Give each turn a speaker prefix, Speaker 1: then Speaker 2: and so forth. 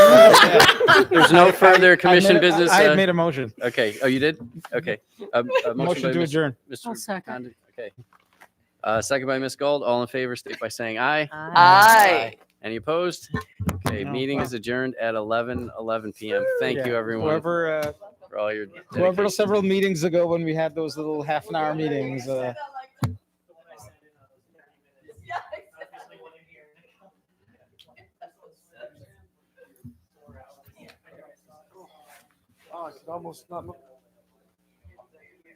Speaker 1: There's no further commission
Speaker 2: made a-
Speaker 1: business.
Speaker 2: I
Speaker 1: uh,
Speaker 2: had made a motion.
Speaker 1: Okay. Oh, you did? Okay. A- a
Speaker 2: Motion
Speaker 1: by
Speaker 2: to
Speaker 1: Mr.
Speaker 2: adjourn.
Speaker 1: Mr.
Speaker 3: I'll second.
Speaker 1: Condon. Okay. Uh, second by Ms. Gold. All in favor, state by saying aye.
Speaker 4: Aye.
Speaker 1: Any opposed? Okay,
Speaker 2: No,
Speaker 1: meeting
Speaker 2: wow.
Speaker 1: is adjourned at 11, 11 p.m. Thank you,
Speaker 2: Yeah.
Speaker 1: everyone,
Speaker 2: Whoever, uh,
Speaker 1: for all your
Speaker 2: whoever
Speaker 1: dedication.
Speaker 2: several meetings ago when we had those little half an hour meetings, uh,
Speaker 5: Oh, I could almost not look.